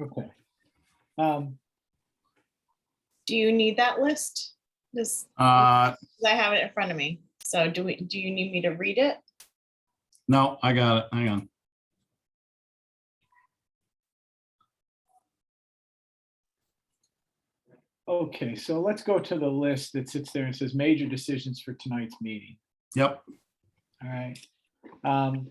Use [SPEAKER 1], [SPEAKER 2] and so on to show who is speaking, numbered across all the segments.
[SPEAKER 1] Okay. Um,
[SPEAKER 2] Do you need that list? This,
[SPEAKER 3] Uh,
[SPEAKER 2] 'cause I have it in front of me. So do we, do you need me to read it?
[SPEAKER 3] no, I got it. Hang on.
[SPEAKER 1] okay, so let's go to the list that sits there and says major decisions for tonight's meeting.
[SPEAKER 3] Yep.
[SPEAKER 1] All right. Um,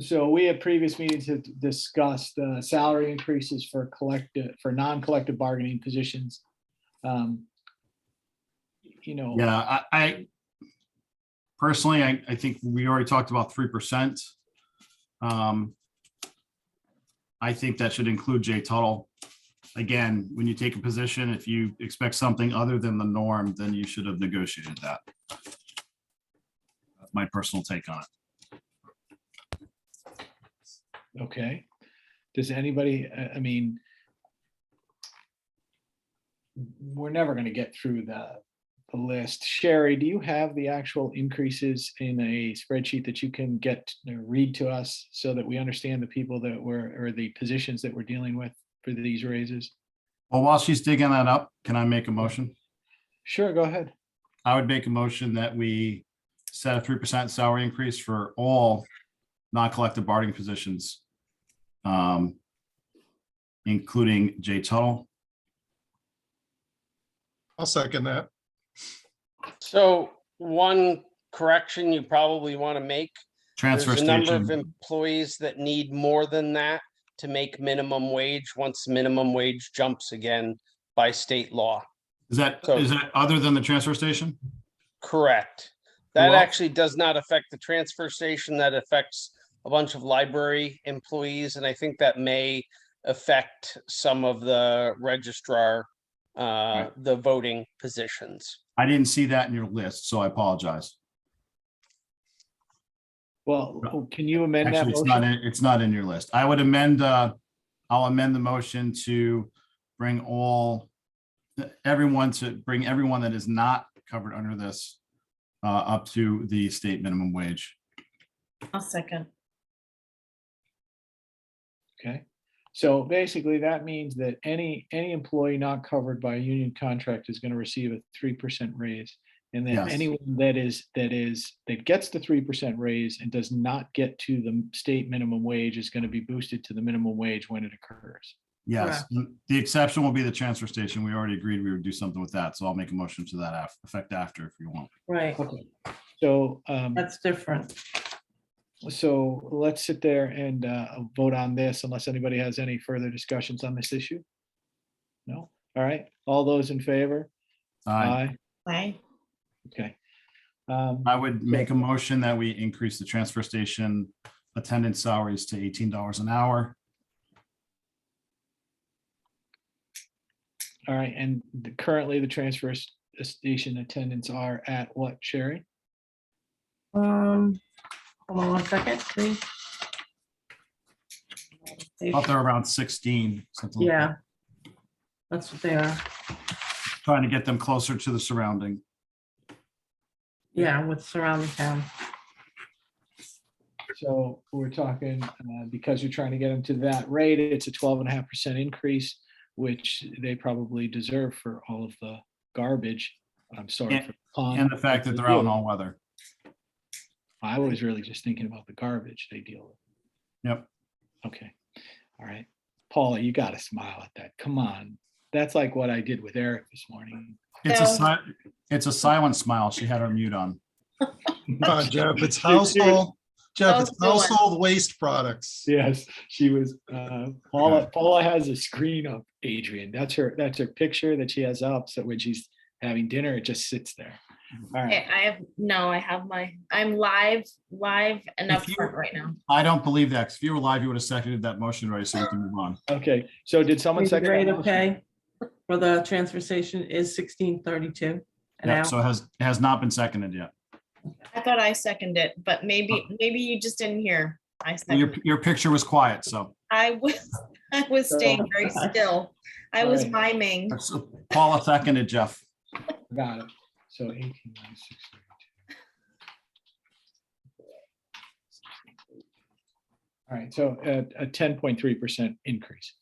[SPEAKER 1] So we at previous meetings have discussed uh, salary increases for collective, for non-collective bargaining positions. Um, You know,
[SPEAKER 3] Yeah, I, I personally, I, I think we already talked about three percent. Um, I think that should include Jay Tuttle. Again, when you take a position, if you expect something other than the norm, then you should have negotiated that. That's My personal take on it.
[SPEAKER 1] okay. Does anybody, I I mean, we're never going to get through the the list. Sherry, do you have the actual increases in a spreadsheet that you can get, uh, read to us so that we understand the people that were, or the positions that we're dealing with for these raises?
[SPEAKER 3] Well, while she's digging that up, can I make a motion?
[SPEAKER 1] Sure, go ahead.
[SPEAKER 3] I would make a motion that we set a three percent salary increase for all non-collective bargaining positions. um, Including Jay Tuttle.
[SPEAKER 4] I'll second that.
[SPEAKER 5] So one correction you probably want to make.
[SPEAKER 3] Transfer
[SPEAKER 5] There's a number of
[SPEAKER 3] station,
[SPEAKER 5] employees that need more than that to make minimum wage once minimum wage jumps again by state law.
[SPEAKER 3] is that,
[SPEAKER 5] so-
[SPEAKER 3] is that other than the transfer station?
[SPEAKER 5] Correct. That
[SPEAKER 3] Well-
[SPEAKER 5] actually does not affect the transfer station. That affects a bunch of library employees, and I think that may affect some of the registrar, uh, the voting positions.
[SPEAKER 3] I didn't see that in your list, so I apologize.
[SPEAKER 1] Well, can you amend that
[SPEAKER 3] Actually, it's
[SPEAKER 1] motion?
[SPEAKER 3] not, in- it's not in your list. I would amend, uh, I'll amend the motion to bring all, everyone to bring everyone that is not covered under this uh, up to the state minimum wage.
[SPEAKER 2] I'll second.
[SPEAKER 1] Okay. So basically, that means that any, any employee not covered by a union contract is going to receive a three percent raise. And then
[SPEAKER 3] Yes.
[SPEAKER 1] anyone that is, that is, that gets the three percent raise and does not get to the state minimum wage is going to be boosted to the minimum wage when it occurs.
[SPEAKER 3] Yes, the exception will be the transfer station. We already agreed we would do something with that, so I'll make a motion to that af- effect after if you want.
[SPEAKER 6] Right,
[SPEAKER 1] Okay. So, um,
[SPEAKER 6] that's different.
[SPEAKER 1] so let's sit there and, uh, vote on this unless anybody has any further discussions on this issue. No? All right. All those in favor?
[SPEAKER 3] I,
[SPEAKER 2] Aye.
[SPEAKER 1] Okay. Um,
[SPEAKER 3] I would make a motion that we increase the transfer station attendant salaries to eighteen dollars an hour.
[SPEAKER 1] All right, and the- currently the transfer s- station attendants are at what, Sherry?
[SPEAKER 6] Um, hold on one second, please.
[SPEAKER 3] Up there around sixteen, something like that.
[SPEAKER 6] Yeah. That's what they are.
[SPEAKER 3] Trying to get them closer to the surrounding.
[SPEAKER 6] Yeah, with surrounding town.
[SPEAKER 1] So we're talking, uh, because you're trying to get them to that rate, it's a twelve and a half percent increase, which they probably deserve for all of the garbage. I'm sorry
[SPEAKER 3] And-
[SPEAKER 1] for the pun.
[SPEAKER 3] And the fact that they're out in all weather.
[SPEAKER 1] I was really just thinking about the garbage they deal with.
[SPEAKER 3] Yep.
[SPEAKER 1] Okay, all right. Paula, you gotta smile at that. Come on. That's like what I did with Eric this morning.
[SPEAKER 3] It's a,
[SPEAKER 2] So-
[SPEAKER 3] si- it's a silent smile. She had her mute on.
[SPEAKER 4] Come on, Jeff, it's household, Jeff, it's
[SPEAKER 2] Household.
[SPEAKER 4] household waste products.
[SPEAKER 1] Yes, she was, uh, Paula, Paula has a screen up, Adrian. That's her, that's her picture that she has up. So when she's having dinner, it just sits there. All
[SPEAKER 2] Okay,
[SPEAKER 1] right,
[SPEAKER 2] I have, no, I have my, I'm live, live and
[SPEAKER 3] If you-
[SPEAKER 2] upfront right now.
[SPEAKER 3] I don't believe that. 'cause If you were live, you would have seconded that motion already, so we can move on.
[SPEAKER 1] okay. So did someone
[SPEAKER 6] The
[SPEAKER 1] second? that
[SPEAKER 6] rate of
[SPEAKER 1] motion?
[SPEAKER 6] pay for the transfer station is sixteen thirty-two an
[SPEAKER 3] Yeah,
[SPEAKER 6] hour.
[SPEAKER 3] so it has, it has not been seconded yet.
[SPEAKER 2] I thought I seconded it, but maybe,
[SPEAKER 3] Oh.
[SPEAKER 2] maybe you just didn't hear. I
[SPEAKER 3] Your,
[SPEAKER 2] seconded.
[SPEAKER 3] your picture was quiet, so.
[SPEAKER 2] I was, I was staying very still. I was
[SPEAKER 1] Alright.
[SPEAKER 2] miming.
[SPEAKER 3] So Paula seconded Jeff.
[SPEAKER 1] Got it. So eighteen minus six thirty-two. All right, so uh, a ten point three percent increase.